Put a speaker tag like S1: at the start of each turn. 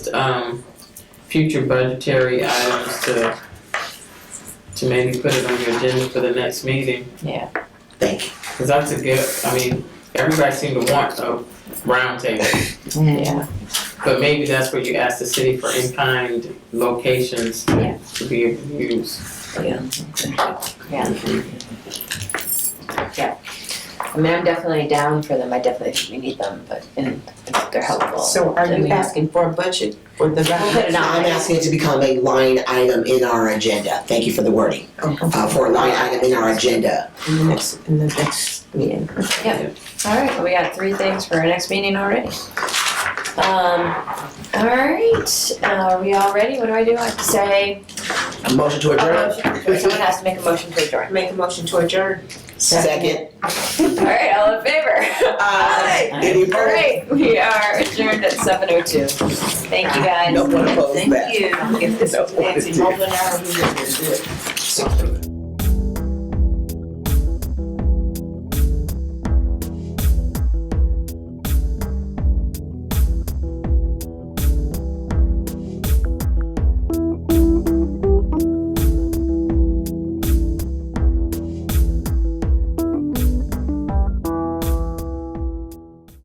S1: um, future budgetary items to, to maybe put it on your agenda for the next meeting.
S2: Yeah.
S3: Thank
S1: you. Cause that's a good, I mean, everybody seemed to want a roundtable,
S2: Yeah,
S1: but maybe that's where you ask the city for in-kind locations
S2: Yeah.
S1: to be able to use.
S2: I mean, I'm definitely down for them, I definitely think we need them, but, and they're helpful.
S4: So are
S2: Then
S4: you
S2: we-
S4: asking for a budget for the
S2: We'll put
S4: revenue?
S2: it on.
S3: I'm asking it to become a line item in our agenda. Thank you for the wording. Uh, for a line item in our agenda.
S4: In the next, in the next meeting.
S2: Alright, well, we got three things for our next meeting already. Um, alright, uh, are we all ready? What do I do? I have to say,
S3: A motion to
S2: oh,
S3: adjourn?
S2: motion to adjourn. someone has to make a motion to adjourn.
S4: Make a motion to adjourn.
S3: Second.
S2: Alright, all in favor?
S3: Aye. Any opposed?
S2: Alright, we are adjourned at seven oh two. Thank you guys.
S3: No one opposed that.
S2: Thank you.
S4: If this, if it's over now, we will do it. So-